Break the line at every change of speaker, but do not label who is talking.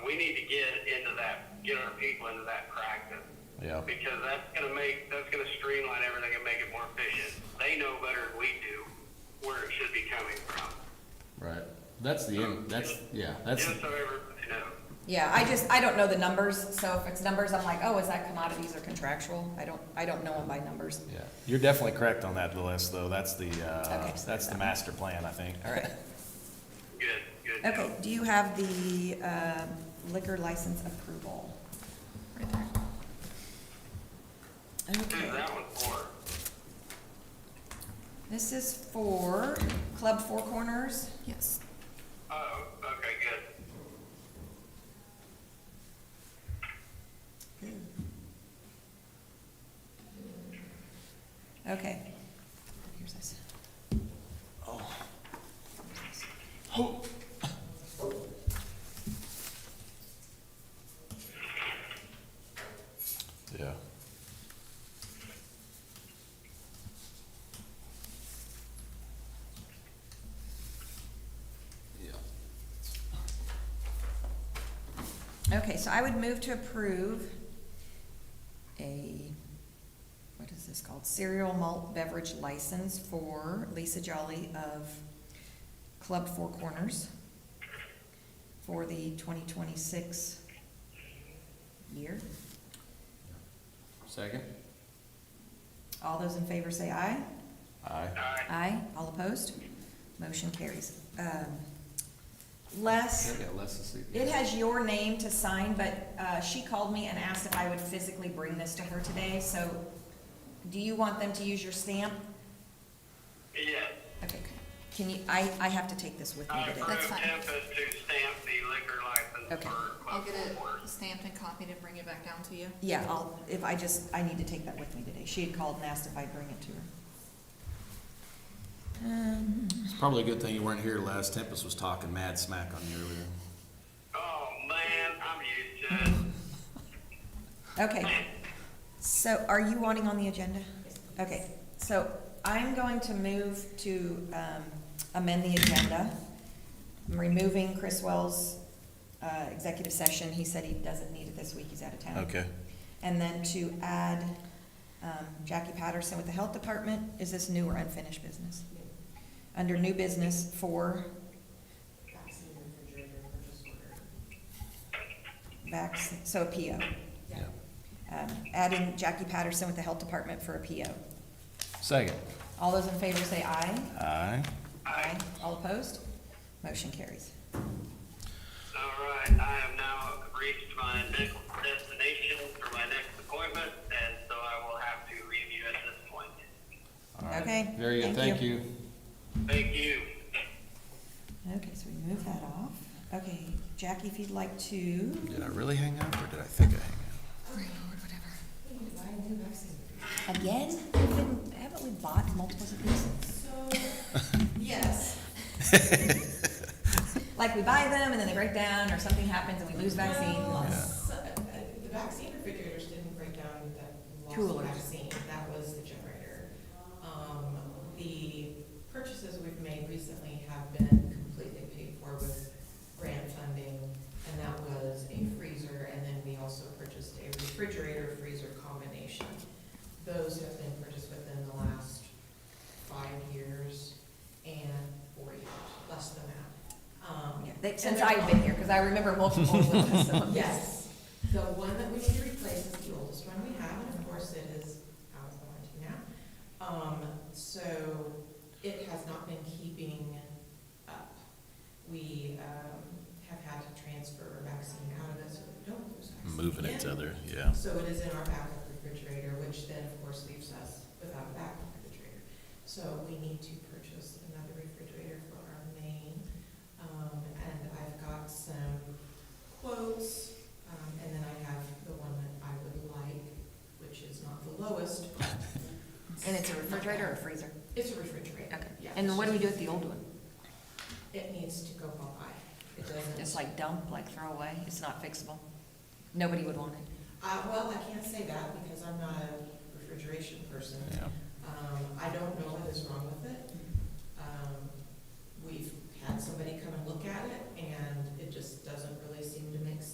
that, get our people into that practice.
Yeah.
Because that's gonna make, that's gonna streamline everything and make it more efficient. They know better than we do where it should be coming from.
Right. That's the end. That's yeah. That's
Just so everybody knows.
Yeah, I just, I don't know the numbers, so if it's numbers, I'm like, oh, is that commodities or contractual? I don't, I don't know them by numbers.
yeah.
You're definitely correct on that list, though. That's the, uh,
Okay, sorry
that's the
about that.
master plan, I think.
All right.
Good, good.
Okay, do you have the um, liquor license approval? Right there.
Who's
Okay,
that one for?
this is for Club Four Corners.
Yes.
Oh, okay, good.
Okay. Here's this.
Yeah.
Okay, so I would move to approve a, what is this called? Cereal malt beverage license for Lisa Jolly of Club Four Corners for the twenty twenty-six year.
Second.
All those in favor say aye.
Aye.
Alright,
Aye. All opposed? Motion carries. Um, Les.
Yeah, less to see.
It has your name to sign, but uh, she called me and asked if I would physically bring this to her today, so do you want them to use your stamp?
yes.
Okay, can you, I, I have to take this with me
I
today.
approve
That's fine.
Tempest to stamp the liquor license
Okay.
for
I'll
Club
get it
Four Corners.
stamped and copied and bring it back down to you.
Yeah, I'll, if I just, I need to take that with me today. She had called and asked if I'd bring it to her. Um,
It's probably a good thing you weren't here last. Tempest was talking mad smack on you earlier.
Oh, man, I'm used to it.
Okay, so are you wanting on the agenda? Okay, so I'm going to move to um, amend the agenda. I'm removing Chris Wells' uh, executive session. He said he doesn't need it this week, he's out of town. And then to add um, Jackie Patterson with the Health Department, is this new or unfinished business? Under new business for
vaccine refrigerator purchase order.
vac, so a
Yeah.
PO. Um, Adding Jackie Patterson with the Health Department for a PO.
Second.
All those in favor say aye.
Aye.
Aye. All opposed? Motion carries.
All right, I have now reached my next destination for my next appointment, and so I will have to leave you at this point.
All right.
Okay,
Very good.
thank
Thank you.
Thank you.
Okay, so we move that off. Okay, Jackie, if you'd like to,
Did I really hang up or did I think I hang up?
Or whatever.
again, We've been- haven't we bought multiples of these?
Yes.
Like, we buy them and then they break down, or something happens and we lose
Well,
vaccine.
s- uh, The vaccine refrigerators didn't break down that lost
Coolers.
vaccine, that was the generator. Um, the purchases we've made recently have been completely paid for with grant funding, and that was a freezer, and then we also purchased a refrigerator freezer combination. Those have been purchased within the last five years and four years, less than that. Um,
Oh, Yeah, they-
and
Since
they're
I've been here, because I remember multiples of this. so-
Yes, the one that we need to replace is the oldest one we have, and of course it is out of warranty now. Um, so it has not been keeping up. We, um, have had to transfer vaccine out of it, so we don't lose vaccine.
Moving it to
again.
other, yeah.
So it is in our backup refrigerator, which then of course leaves us without a backup refrigerator. So we need to purchase another refrigerator for our main. Um, and I've got some quotes, um, and then I have the one that I would like, which is not the lowest. but
And it's a refrigerator or a freezer?
It's a refrigerator.
Okay.
Yeah.
And what do we do with the old one?
It needs to go by. It doesn't.
Just like dump, like throw away? It's not fixable? Nobody would want it.
Uh, well, I can't say that because I'm not a refrigeration person.
Yeah.
Um, I don't know what is wrong with it. Um, we've had somebody come and look at it, and it just doesn't really seem to make sense.